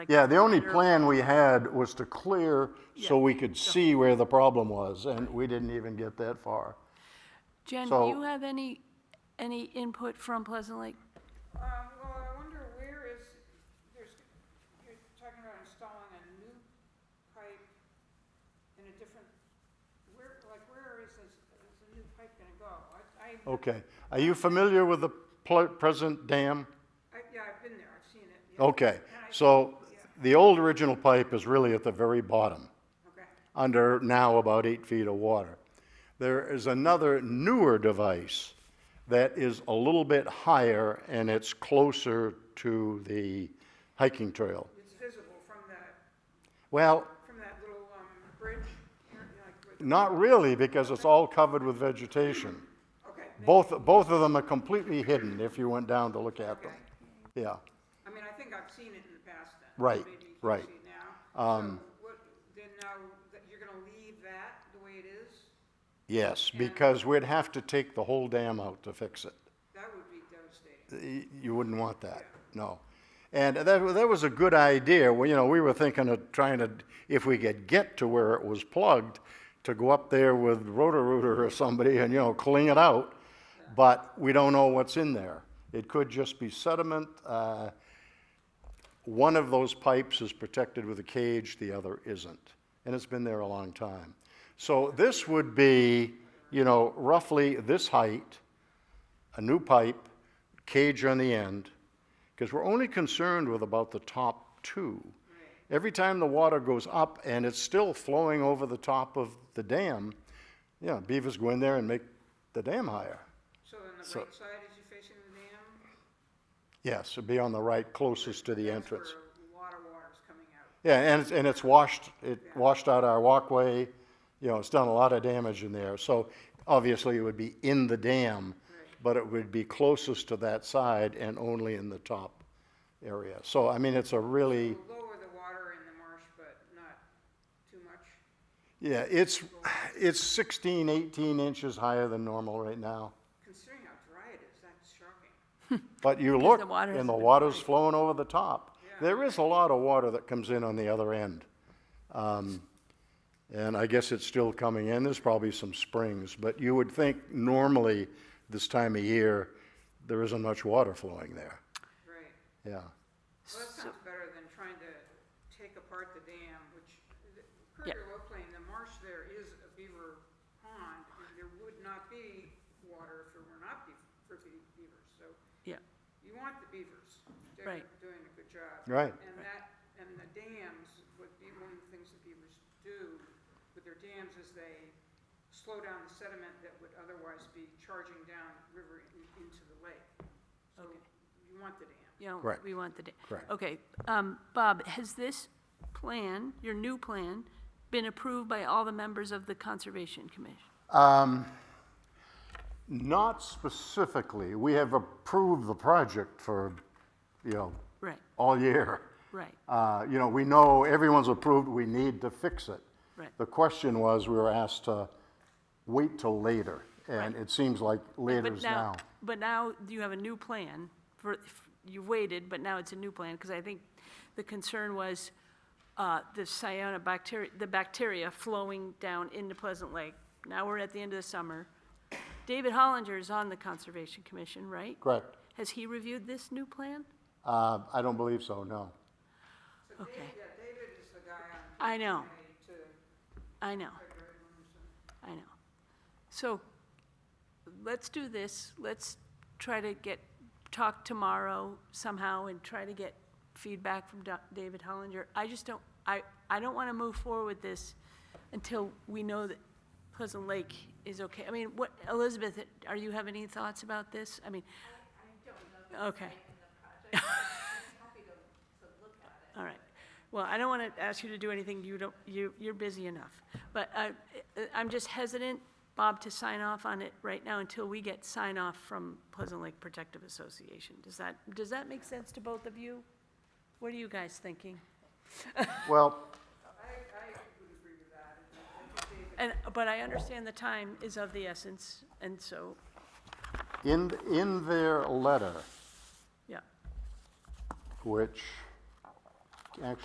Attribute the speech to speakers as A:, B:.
A: like
B: Yeah, the only
A: clear-
B: plan we had was to clear so we could see where the problem was, and we didn't even get that far.
A: Jen, do
B: so-
A: you have any, any input from Pleasant Lake?
C: Um, well, I wonder where is, there's, you're talking about installing a new pipe in a different, where, like, where is this, is the new pipe gonna go? I, I,
B: Okay, are you familiar with the pl- present dam?
C: I- yeah, I've been there, I've seen it, yeah,
B: Okay, so the old original pipe is really at the very bottom,
C: okay.
B: under now about eight feet of water. There is another newer device that is a little bit higher, and it's closer to the hiking trail.
C: It's visible from that,
B: Well,
C: from that little, um, bridge here, you know, like, with,
B: not really, because it's all covered with vegetation.
C: okay.
B: Both, both of them are completely hidden if you went down to look at them. Yeah.
C: I mean, I think I've seen it in the past then.
B: Right,
C: Maybe you can
B: right. Um,
C: see it now. So what, then now, that you're gonna leave that the way it is?
B: Yes, because we'd have to take the whole dam out to fix it.
C: That would be devastating.
B: Y- You wouldn't want that, no. And that, wa- that was a good idea, well, you know, we were thinking of trying to, if we could get to where it was plugged, to go up there with Roto-Rooter or somebody and, you know, clean it out, but we don't know what's in there. It could just be sediment, uh, One of those pipes is protected with a cage, the other isn't. And it's been there a long time. So this would be, you know, roughly this height, a new pipe, cage on the end, because we're only concerned with about the top two. Every time the water goes up and it's still flowing over the top of the dam, yeah, beavers go in there and make the dam higher.
C: So on the right side, as you're facing the dam?
B: Yes, it'd be on the right, closest to the entrance.
C: That's where a lot of water's coming out.
B: Yeah, and it's, and it's washed, it washed out our walkway, you know, it's done a lot of damage in there. So obviously it would be in the dam, but it would be closest to that side and only in the top area. So, I mean, it's a really,
C: It'll Lower the water in the marsh, but not too much.
B: yeah, it's, it's 16, 18 inches higher than normal right now.
C: Considering how dry it is, that's shocking.
B: But you
A: Because
B: look
A: the water
B: and
A: hasn't
B: the
A: been
B: water's flowing over the top.
C: Yeah.
B: There is a lot of water that comes in on the other end. Um, And I guess it's still coming in. There's probably some springs, but you would think normally this time of year, there isn't much water flowing there.
C: Right.
B: Yeah.
C: Well, that sounds better than trying to take apart the dam, which, the- Courier Low Plain, the marsh there is a beaver pond. and There would not be water if there were not be, for be- beavers, so
A: Yeah,
C: you want the beavers. They're
A: Right.
C: doing a good job.
B: Right.
C: And that, and the dams, would be one of the things that beavers do with their dams is they slow down the sediment that would otherwise be charging down river in- into the lake. So
A: Okay.
C: you want the dam.
A: you know,
B: Correct.
A: we want the. da-
B: Correct.
A: Okay, um, Bob, has this plan, your new plan, been approved by all the members of the Conservation Commission?
B: Um, Not specifically. We have approved the project for, you know,
A: Right,
B: all year.
A: right,
B: Uh, You know, we know everyone's approved, we need to fix it.
A: Right.
B: The question was, we were asked to wait till later, and
A: Right.
B: it seems like later
A: But
B: is now.
A: now, but now you have a new plan for, you waited, but now it's a new plan, because I think the concern was uh, the cyanobacteria, the bacteria flowing down into Pleasant Lake. Now we're at the end of the summer. David Hollinger is on the Conservation Commission, right?
B: Correct.
A: Has he reviewed this new plan?
B: Uh, I don't believe so, no.
C: So David,
A: Okay.
C: yeah, David is the guy on.
A: I know.
C: PTA To,
A: I know, I know. So let's do this. Let's try to get, talk tomorrow somehow and try to get feedback from Doc- David Hollinger. I just don't, I, I don't want to move forward with this until we know that Pleasant Lake is okay. I mean, what, Elizabeth, are you have any thoughts about this? I mean,
D: I don't know the
A: okay,
D: site and the project, but I'm happy to, to look at it.
A: all right. Well, I don't want to ask you to do anything you don't, you, you're busy enough. But I, I'm just hesitant, Bob, to sign off on it right now until we get sign off from Pleasant Lake Protective Association. Does that, does that make sense to both of you? What are you guys thinking?
B: Well,
C: I, I would agree with that. I think- I think David
A: And, but I understand the time is of the essence, and so,
B: in, in their letter,
A: yeah,
B: which actually